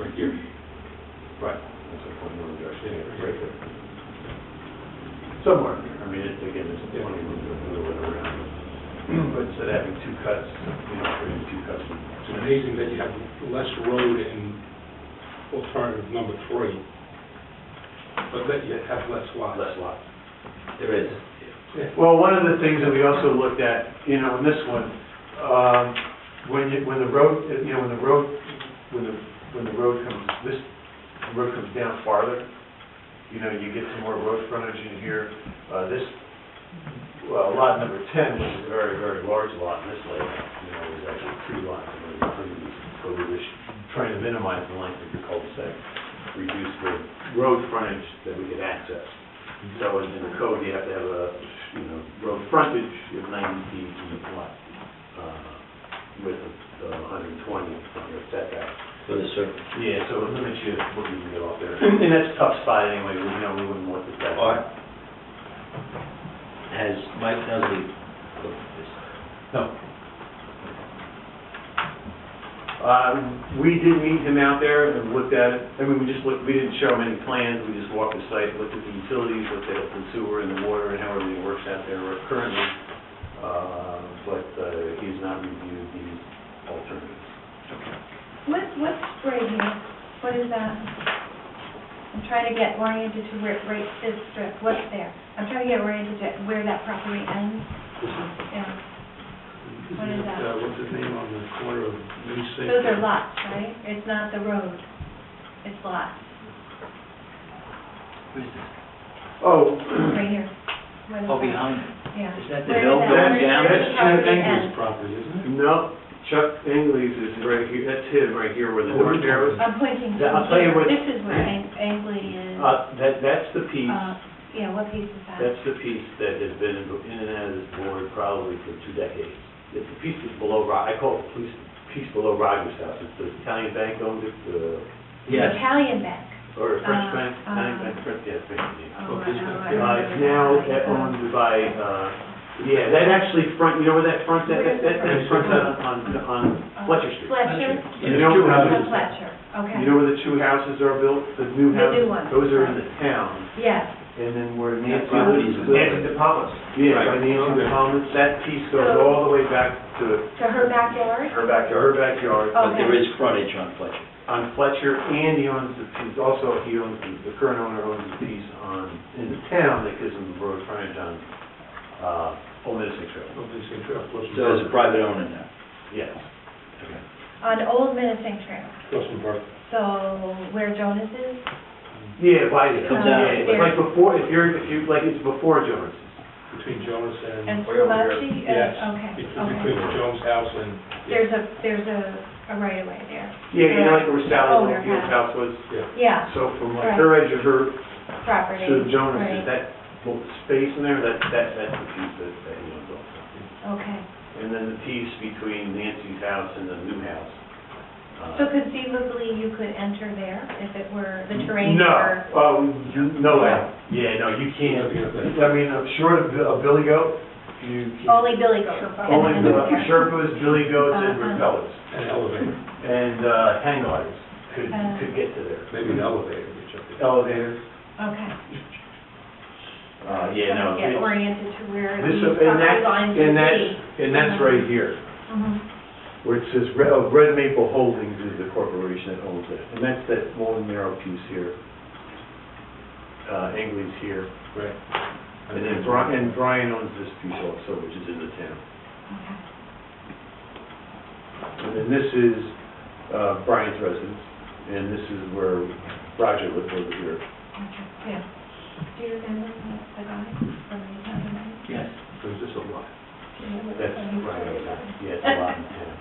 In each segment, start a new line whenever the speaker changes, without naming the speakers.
Right here. Right.
That's a point where we're actually, yeah, right there.
Somewhere. I mean, it's, again, it's a twenty little bit, little bit around. But instead of having two cuts, you know, putting two cuts. in.
It's amazing that you have less road in alternative number three, but that you have less lots.
Less lots.
There is.
Yeah.
Well, one of the things that we also looked at, you know, in this one, um, when you, when the road, you know, when the road, when the, when the road comes, this road comes down farther, you know, you get some more road frontage in here. Uh, This, well, lot number 10, which is a very, very large lot in this layout, you know, is actually two lots. and we're gonna do this, So we were just trying to minimize the length of your cul-de-sac, reduce the road frontage that we could access. So in in the code, you have to have a, you know, road frontage of 90 feet from the lot uh, with a 120 from your setback.
For the circle.
Yeah, so it limits you what you can get off there. Oh, And that's a tough spot anyway, we know we wouldn't want it that.
All right.
Has Mike Nuzzi looked at this?
No. Uh, We did meet him out there and looked at it, I mean, we just looked, we didn't show him any plans, we just walked the site, looked at the utilities, looked at the sewer and the water and how everything works out there currently, Uh, but uh, he's not reviewed the alternatives.
What, what's right here? What is that? I'm trying to get oriented to where, right this strip, what's there? I'm trying to get oriented to where that property ends. Yeah. What is that?
Uh, What's his name on the corner of New City?
Those are lots, right? It's not the road. It's lots,
Oh,
right here. What is
Oh,
that?
behind it.
Yeah.
Is that the
Where
hill
that-
going
where does
down?
that
That's
property
English
end?
property, isn't it?
no, Chuck Angley's is right here, that's him right here where the
Oh, we're
north arrow is.
I'm pointing to
Yeah, I'll tell you
here.
what-
This is where Ang- Angley is.
Uh, That, that's the piece
Uh, Yeah, what piece is that?
That's the piece that has been in in and out of this board probably for two decades. It's the piece that's below, Ro- I call it the piece- piece below Rogers House. It's the Italian bank owned it, uh,
Yes.
Italian Bank.
or French
Uh,
bank, Italian
uh,
bank, French, yeah, French. yeah.
Oh,
Well, this
I know,
one-
I
Uh,
remember
It's now
that.
uh, owned by, uh, yeah, that actually front, you know where that front, that, that, that front on, on- on Fletcher Street.
Fletcher?
You know where
Oh,
the-
Fletcher, okay.
you know where the two houses are built, the new
The new
houses?
ones.
Those are in the town.
Yes,
And then where
That
Nancy
property's
Lou's
in
living.
the Palmas.
Yeah, by Nancy
Okay.
Thomas, that piece goes all the way back to
to her backyard?
her backyard, her backyard,
But there
Okay.
is frontage on Fletcher.
on Fletcher, and he owns the piece, also he owns, the- the current owner owns the piece on, in the town that gives him the road frontage on, uh, Old Middlesex Road.
Of this interest, plus
So there's a private owner now.
Yes.
On Old Menacing Trail,
plus some park.
so where Jonas is?
Yeah, by, yeah,
Comes out.
it's like before, if you're, if you, like, it's before Jones.
between Jones and...
And
Way over here.
Scalacci?
Yes.
Uh, Okay,
Between between the
okay.
Jones house and...
There's a, there's a, a right of way there.
Yeah, you know, like where
Oh,
Sally
their
Field's house was,
Yeah,
so from like her edge of her
property.
to Jones,
right.
is that little space in there, that, that, that's the piece that, that he owns also.
Okay,
And then the piece between Nancy's house and the new house. uh,
so conceivably you could enter there if it were the terrain?
No,
were-
oh, you- no way. Yeah, no, you can't. I mean, I'm sure of a Billy Goat, you. can't-
Only Billy goes.
Only the Sherpas, Billy Goats, and
Uh-huh.
repellers,
An elevator,
and uh, hang gliders could,
Uh.
could get to there.
maybe an elevator, which I...
Elevator.
Okay.
Uh, yeah, no.
Trying to get
it-
oriented to where
This,
these
and
property lines
that,
would
and
be.
that's, and that's right here,
Mhm.
where it says, Red oh, Red Maple Holdings is the corporation that owns it. And that's that long narrow piece here. Uh, Angley's here.
Right.
And then Brian, and Brian owns this piece also, which is in the town.
Okay.
And then this is uh, Brian's residence, and this is where Roger lived over here.
Okay, yeah. Do you remember the the guy from the Italian bank?
Yes.
There's just a lot.
Do you remember
That's
when he
Brian over
started?
there. Yeah, it's a lot in town.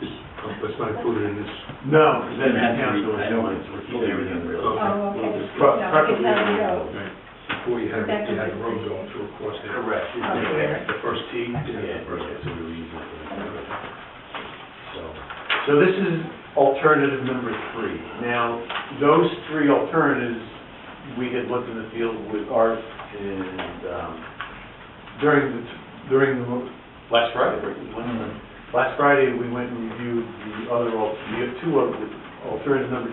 That's not included in this,
No,
It's
that's
gonna have to
town,
be-
so it's
I
not-
don't want to repeat everything.
Okay.
Oh, okay.
We'll just-
So
Pro-
I can
property-
tell you go.
before you had, you had a road going through across there.
Correct.
Oh, yeah.
The first T?
Yeah,
Yeah,
the first T.
so we were using it. So, so this is alternative number three. Now, those three alternatives, we had looked in the field with Art and, um, during the, during the, mo- last Friday, right? Last Friday, we went and reviewed the other, al- the two of the alternative number